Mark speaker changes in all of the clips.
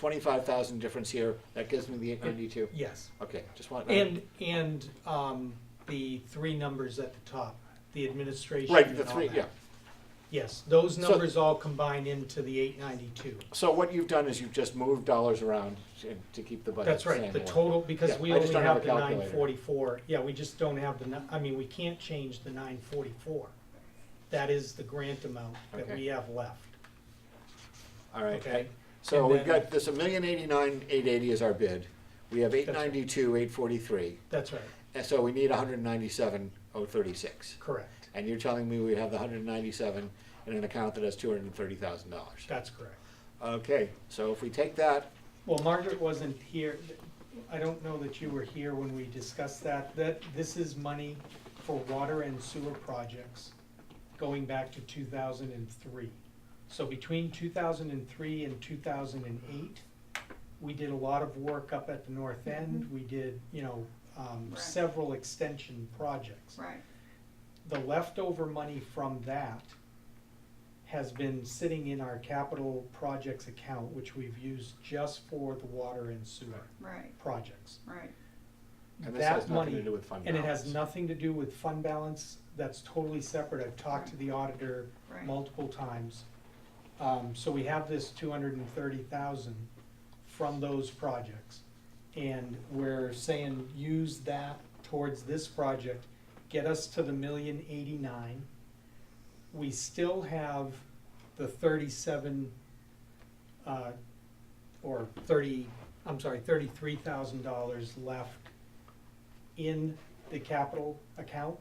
Speaker 1: twenty-five thousand difference here, that gives me the eight ninety-two?
Speaker 2: Yes,
Speaker 1: Okay, just want. uh,
Speaker 2: and, and, um, the three numbers at the top, the administration
Speaker 1: Right, the
Speaker 2: and all
Speaker 1: three,
Speaker 2: that.
Speaker 1: yeah.
Speaker 2: Yes, those
Speaker 1: So-
Speaker 2: numbers all combine into the eight ninety-two.
Speaker 1: So what you've done is you've just moved dollars around to- to keep the budget
Speaker 2: That's right,
Speaker 1: same
Speaker 2: the
Speaker 1: way.
Speaker 2: total, because
Speaker 1: Yeah,
Speaker 2: we
Speaker 1: I just
Speaker 2: only
Speaker 1: don't have
Speaker 2: have
Speaker 1: a
Speaker 2: the
Speaker 1: calculator.
Speaker 2: nine forty-four, yeah, we just don't have the, ni- I mean, we can't change the nine forty-four. That is the grant amount that
Speaker 1: Okay.
Speaker 2: we have left,
Speaker 1: All right,
Speaker 2: okay?
Speaker 1: so
Speaker 2: And
Speaker 1: we've
Speaker 2: then-
Speaker 1: got this, a million eighty-nine, eight eighty is our bid. We have eight
Speaker 2: right.
Speaker 1: ninety-two, eight forty-three,
Speaker 2: That's right,
Speaker 1: and so we need hundred and ninety-seven, oh thirty-six.
Speaker 2: correct,
Speaker 1: And you're telling me we have the hundred and ninety-seven in an account that has two hundred and thirty thousand dollars?
Speaker 2: that's correct.
Speaker 1: Okay, so if we take that,
Speaker 2: Well, Margaret wasn't here, I don't know that you were here when we discussed that, that this is money for water and sewer projects going back to two thousand and three. So between two thousand and three and two thousand and eight, we did a lot of work up at the north end, we did, you know, um,
Speaker 3: Mm-hmm. Right.
Speaker 2: several extension projects.
Speaker 3: Right,
Speaker 2: The leftover money from that has been sitting in our capital projects account, which we've used just for the water and sewer
Speaker 3: right,
Speaker 2: projects.
Speaker 3: right.
Speaker 1: and this has
Speaker 2: That
Speaker 1: nothing to
Speaker 2: money-
Speaker 1: do with fund
Speaker 2: And it has
Speaker 1: balance.
Speaker 2: nothing to do with fund balance, that's totally separate, I've talked to the auditor
Speaker 3: Right.
Speaker 2: multiple times. Um, so we have this two hundred and thirty thousand from those projects. And we're saying, use that towards this project, get us to the million eighty-nine. We still have the thirty-seven, uh, or thirty, I'm sorry, thirty-three thousand dollars left in the capital account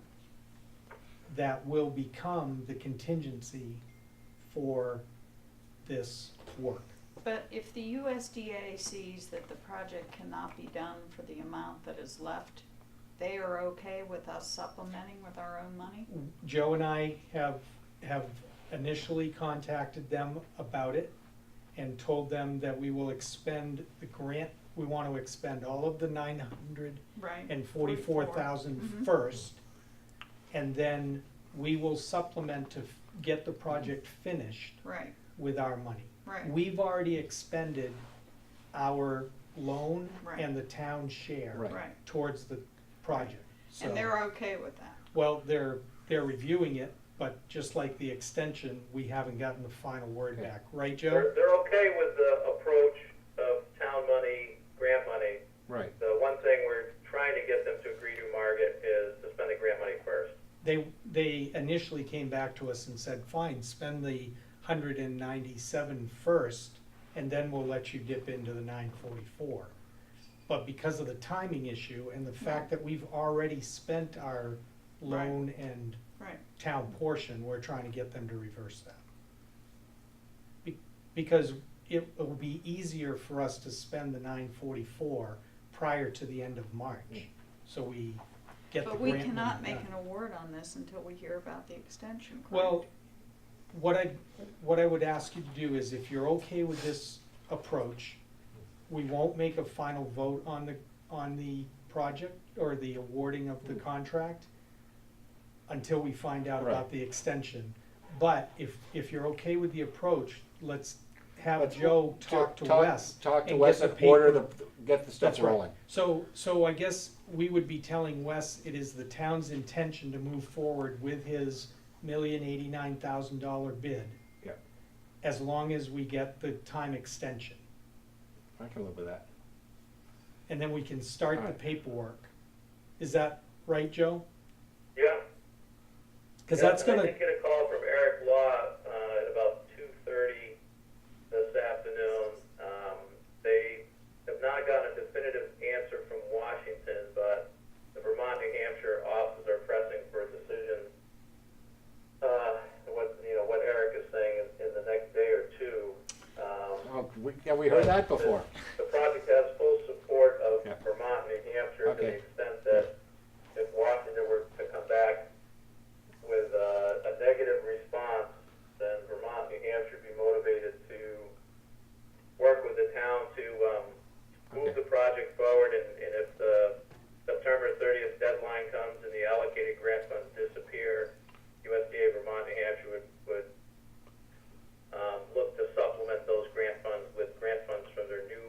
Speaker 2: that will become the contingency for this work.
Speaker 3: But if the USDA sees that the project cannot be done for the amount that is left, they are okay with us supplementing with our own money?
Speaker 2: Joe and I have, have initially contacted them about it and told them that we will expend the grant, we want to expend all of the nine hundred
Speaker 3: Right,
Speaker 2: and forty-four thousand first. And then we will supplement to f- get the project finished
Speaker 3: right,
Speaker 2: with our money.
Speaker 3: right,
Speaker 2: We've already expended our loan
Speaker 3: Right.
Speaker 2: and the town share
Speaker 1: Right.
Speaker 3: right.
Speaker 2: towards the project. So-
Speaker 3: And they're okay with that,
Speaker 2: Well, they're, they're reviewing it, but just like the extension, we haven't gotten the final word
Speaker 1: Yeah.
Speaker 2: back, right,
Speaker 4: They're,
Speaker 2: Joe?
Speaker 4: they're okay with the approach of town money, grant money.
Speaker 1: Right,
Speaker 4: The one thing we're trying to get them to agree to, Margaret, is to spend the grant money first.
Speaker 2: They, they initially came back to us and said, fine, spend the hundred and ninety-seven first, and then we'll let you dip into the nine forty-four. But because of the timing issue and the fact that we've already spent our loan and
Speaker 3: right,
Speaker 2: town portion, we're trying to get them to reverse that. Be- Because it will be easier for us to spend the nine forty-four prior to the end of March, so we get the
Speaker 3: but
Speaker 2: grant.
Speaker 3: we
Speaker 2: money
Speaker 3: cannot make
Speaker 2: done.
Speaker 3: an award on this until we hear about the extension, correct?
Speaker 2: Well, what I, what I would ask you to do is if you're okay with this approach, we won't make a final vote on the, on the project or the awarding of the
Speaker 1: Hmm.
Speaker 2: contract until we find out about
Speaker 1: Right.
Speaker 2: the extension. But if, if you're okay with the approach, let's have
Speaker 1: Let's
Speaker 2: Joe talk to Wes.
Speaker 1: Talk to
Speaker 2: and
Speaker 1: Wes
Speaker 2: get
Speaker 1: and
Speaker 2: the
Speaker 1: order the,
Speaker 2: paper-
Speaker 1: get the stuff
Speaker 2: That's right.
Speaker 1: rolling.
Speaker 2: So, so I guess we would be telling Wes it is the town's intention to move forward with his million eighty-nine thousand dollar bid.
Speaker 1: Yep.
Speaker 2: As long as we get the time extension,
Speaker 1: I can live with that.
Speaker 2: and then we can start the
Speaker 1: Alright.
Speaker 2: paperwork. Is that right, Joe?
Speaker 4: Yeah.
Speaker 2: Cause
Speaker 4: Yeah,
Speaker 2: that's
Speaker 4: and I
Speaker 2: gonna,
Speaker 4: did get a call from Eric Law, uh, at about two thirty this afternoon. Um, they have not gotten a definitive answer from Washington, but the Vermont, New Hampshire offices are pressing for a decision. Uh, what, you know, what Eric is saying is in the next day or two. Um,
Speaker 1: Oh, we, yeah, we heard that before.
Speaker 4: The pro- uh, um, um,